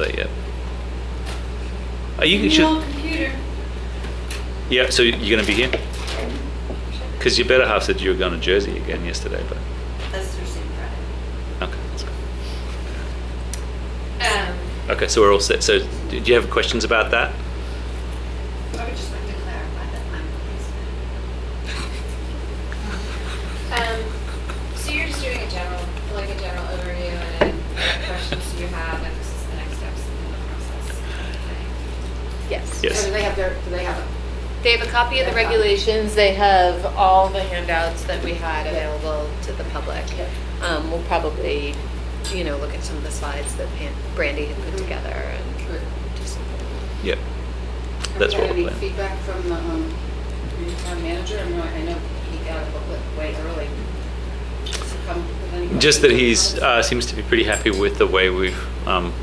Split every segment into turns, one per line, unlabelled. that yet. Are you
Your
should,
computer.
yeah. So you're going to be here because your better half said you were going to Jersey again yesterday, but
That's Thursday and Friday.
okay, that's good.
Um,
Okay, so we're all set. So do you have questions about that?
I would just like to clarify that I'm pleased.
um, so you're just doing a general, like a general overview and what questions you have, and this is the next steps in the process.
Yes.
Yes.
And they have their, do they have a? They have a copy of the regulations, they have all the handouts that we had available to the public. Um, we'll probably, you know, look at some of the slides that Pan- Brandy had
Mm-hmm.
put together and just.
Yeah. That's what
Have you
we're
had any
planning.
feedback from the um, new town manager? I know, I know he got a booklet way early. Has he come with any-
Just that he's uh, seems to be pretty happy with the way we've um,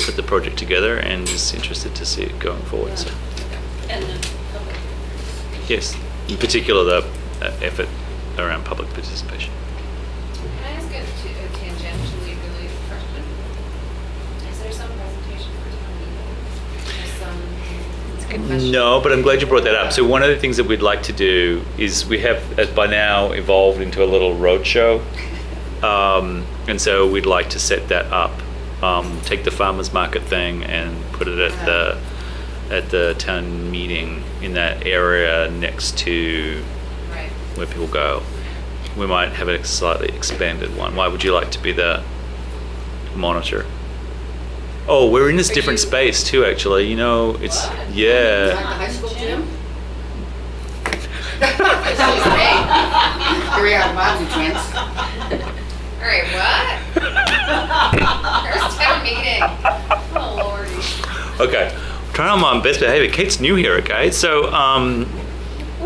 put the project together and is interested to see it going forward. So
And the public.
yes, in particular the uh, effort around public participation.
Can I ask a t- a tangentially related question? Is there some presentation for town meeting? Or some? It's a good
No, but I'm glad you brought that up. So one of the things that we'd like to do is we have uh, by now evolved into a little roadshow, um, and so we'd like to set that up. Um, take the farmers market thing and put it at the
Uh-huh.
at the town meeting in that area next to
Right.
where people go. We might have a slightly expanded one. Why would you like to be the monitor? Oh, we're in this
Are
different
you-
space too. Actually, you know, it's
What?
Like the
yeah.
high school gym?
Excuse me?
Here we are, Bob's chance.
All right, what? First town meeting. Oh, lordy.
Okay, trying on my best behavior. Kate's new here, okay? So, um,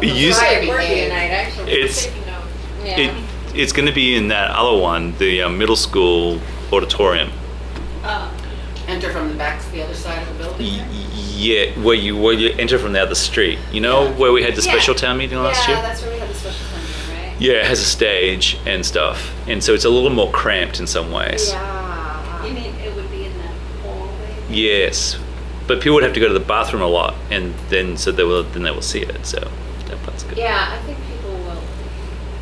we use,
Right,
be
we're
made.
tonight, actually.
It's-
Taking notes.
it, it's going to be in that other one, the uh, middle school auditorium.
Enter from the back to the other side of the building.
Y- yeah, where you where you enter from the other street. You know where we had the
Yeah.
special town meeting last year.
Yeah, that's where we had the special town meeting, right?
yeah, it has a stage and stuff, and so it's a little more cramped in some ways.
You mean it would be in the hallway?
Yes, but people would have to go to the bathroom a lot, and then so they will then they will see it. So that part's good.
Yeah, I think people will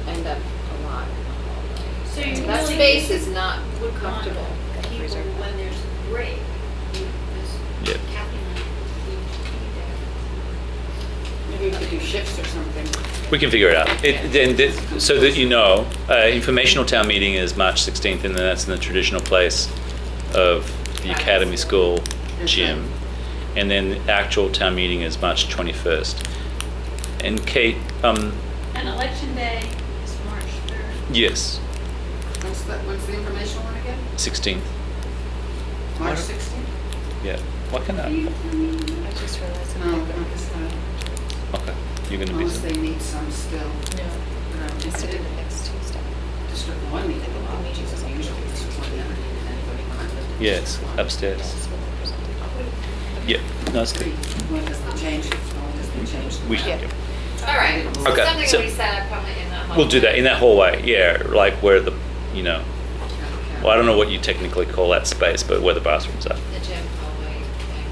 end up a lot.
So you
That
really
space is not
would want
comfortable.
People, when there's a break, you- this-
Yep.
Kathy and I, we we there.
Maybe we could do shifts or something.
We can figure it out. It, then, th- so that you know, uh, informational town meeting is March 16th, and then that's in the traditional place of the Academy School gym. And then the actual town meeting is March 21st. And Kate, um,
And election day is March 3rd.
yes,
When's the, when's the informational one again?
16th.
March
March-
16th?
Yeah. What can
Can you
I?
tell me?
I just realized
No, I guess not.
Okay. You're going to be.
Unless they
some-
need some still.
No, it's to do the next Tuesday.
District one meeting, a lot of meetings as usual. It's one meeting and anybody can-
Yeah, it's upstairs.
That's what we're presenting.
Yeah. No, it's
Three.
good.
When does the change, when does the change?
We should.
Yeah.
All right. So
Okay,
Something
so-
we set up probably in that.
We'll do that in that hallway. Yeah, like where the, you know, well, I don't know what you technically call that space, but where the bathrooms are.
The gym hallway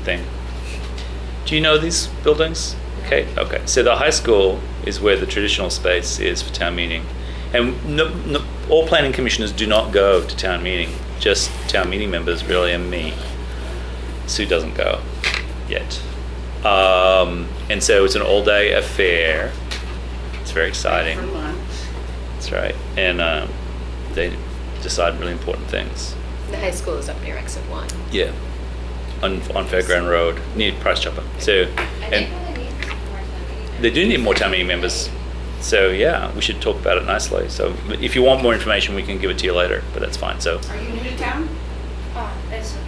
thing.
thing. Do you know these buildings? Okay, okay. So the high school is where the traditional space is for town meeting. And no, no, all planning commissioners do not go to town meeting, just town meeting members really and me. Sue doesn't go yet. Um, and so it's an all day affair. It's very exciting.
For lunch.
That's right. And um, they decide really important things.
The high school is up near exit one.
Yeah. On, on Fairground Road, near Price Chopper. So,
I
and
think we need some more town meeting.
they do need more town meeting members. So yeah, we should talk about it nicely. So if you want more information, we can give it to you later, but that's fine. So
Are you new to town?
Oh, that's what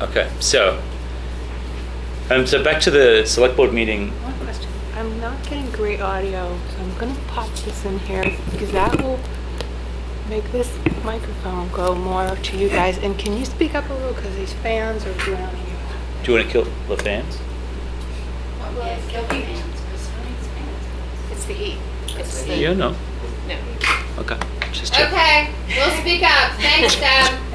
we do.
okay, so um, so back to the select board meeting.
One question. I'm not getting great audio, so I'm gonna pop this in here because that will make this microphone go more to you guys. And can you speak up a little because these fans are drowning you out.
Do you want to kill the fans?
Yeah, Kelly Vance, Chris Cummings Vance.
It's the heat. It's the.
Yeah, no. Uh,
No.
Okay, just check.
Okay, we'll speak up. Thanks, Deb.